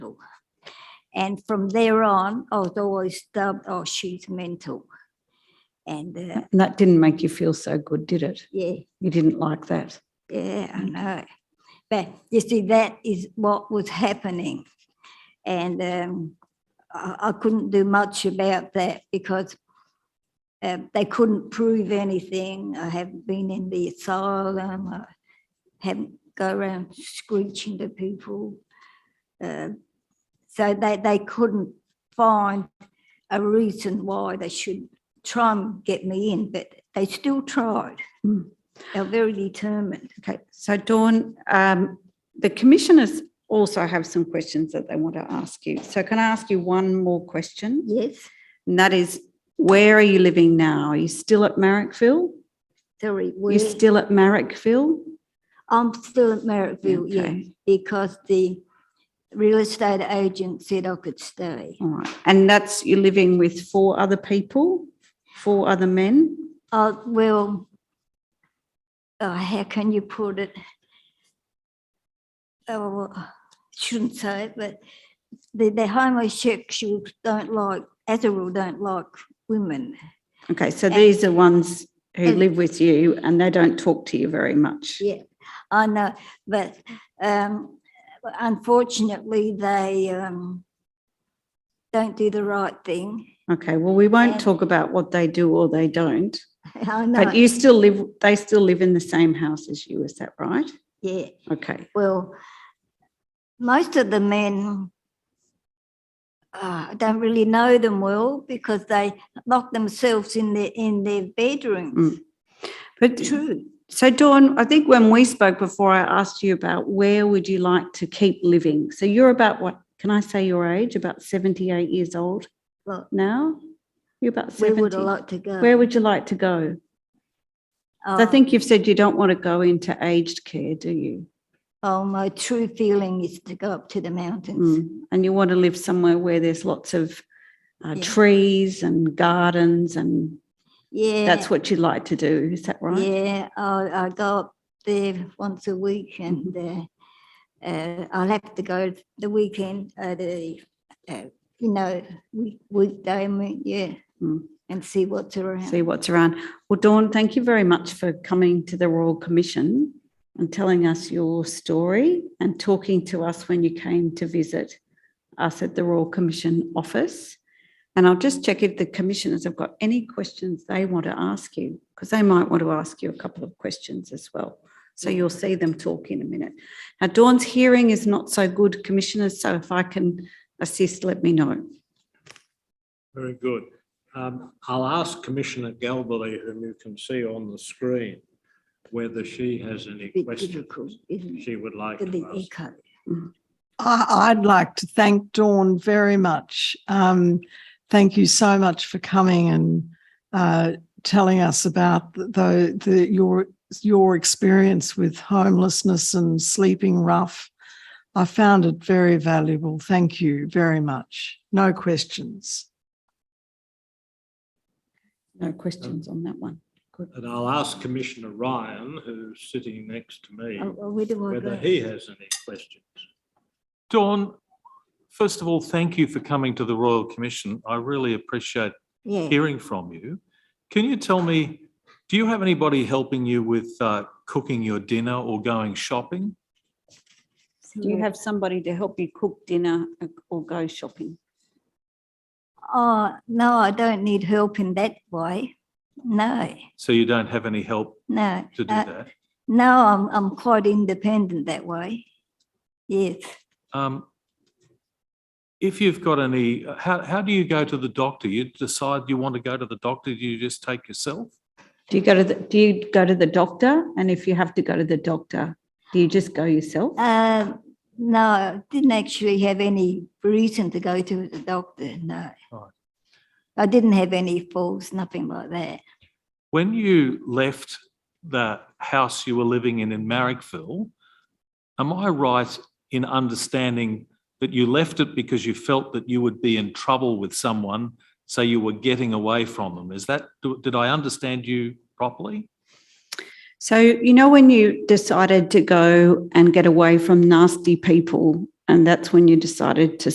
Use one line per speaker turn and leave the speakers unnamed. And from there on, I was always dubbed, oh, she's mental. And uh,
And that didn't make you feel so good, did it?
yeah,
You didn't like that.
Yeah, I know. But you see, that is what was happening. And um, I, I couldn't do much about that because uh, they couldn't prove anything. I haven't been in the asylum. I haven't go around screeching to people. Uh, so they, they couldn't find a reason why they should try and get me in, but they still tried.
Mm.
They're very determined.
Okay, so Dawn, um, the commissioners also have some questions that they want to ask you. So can I ask you one more question?
Yes,
And that is, where are you living now? Are you still at Marrickville?
sorry, we,
You're still at Marrickville?
I'm still at Merrickville, yeah,
Okay.
because the real estate agent said I could stay.
All right. And that's, you're living with four other people, four other men?
Uh, well, uh, how can you put it? Oh, I shouldn't say it, but the, the homosexuals don't like, as a rule, don't like women.
Okay, so
And-
these are ones who
and-
live with you and they don't talk to you very much.
Yeah, I know, but um, unfortunately, they um, don't do the right thing.
Okay, well, we won't
And-
talk about what they do or they don't.
I know,
But you still live, they still live in the same house as you, is that right?
yeah.
Okay,
Well, most of the men, uh, I don't really know them well because they lock themselves in their, in their
Mm.
bedrooms.
but
True.
so Dawn, I think when we spoke before, I asked you about where would you like to keep living? So you're about what, can I say your age? About 78 years old
Well,
now? You're about
where
70.
would I like to go?
Where would you like to go? I
Oh,
think you've said you don't want to go into aged care, do you?
Oh, my true feeling is to go up to the mountains.
Mm. And you want to live somewhere where there's lots of uh,
Yeah.
trees and gardens and
Yeah.
that's what you like to do, is that right?
Yeah, I, I go up there once a week and
Mm-hmm.
uh, uh, I'll have to go the weekend, uh, the, uh, you know, week, weekday, I mean, yeah,
Mm.
and see what's around.
see what's around. Well, Dawn, thank you very much for coming to the Royal Commission and telling us your story and talking to us when you came to visit us at the Royal Commission office. And I'll just check if the commissioners have got any questions they want to ask you, because they might want to ask you a couple of questions as well. So you'll see them talk in a minute. Now, Dawn's hearing is not so good, commissioners, so if I can assist, let me know.
Very good. Um, I'll ask Commissioner Galbally, whom you can see on the screen, whether she has any
Bit difficult,
questions
isn't it?
she would like
For the uh,
to ask.
echo.
I, I'd like to thank Dawn very much. Um, thank you so much for coming and uh, telling us about the, the, the your your experience with homelessness and sleeping rough. I found it very valuable. Thank you very much. No questions.
No questions on that one. Good.
And I'll ask Commissioner Ryan, who's sitting next to me,
Oh, oh, Where do I
whether
go?
he has any questions.
Dawn, first of all, thank you for coming to the Royal Commission. I really appreciate
Yeah,
hearing from you. Can you tell me, do you have anybody helping you with uh, cooking your dinner or going shopping?
Do you have somebody to help you cook dinner uh, or go shopping?
oh, no, I don't need help in that way. No,
So you don't have any help
no.
to do
uh,
that?
No, I'm, I'm quite independent that way. Yes.
Um, If you've got any, uh, how, how do you go to the doctor? You decide you want to go to the doctor, do you just take yourself?
Do you go to the, do you go to the doctor? And if you have to go to the doctor, do you just go yourself?
Uh, no, I didn't actually have any reason to go to the doctor, no.
Right.
I didn't have any falls, nothing like that.
When you left the house you were living in in Marrickville, am I right in understanding that you left it because you felt that you would be in trouble with someone, so you were getting away from them? Is that, do- did I understand you properly?
So, you know, when you decided to go and get away from nasty people, and that's when you decided to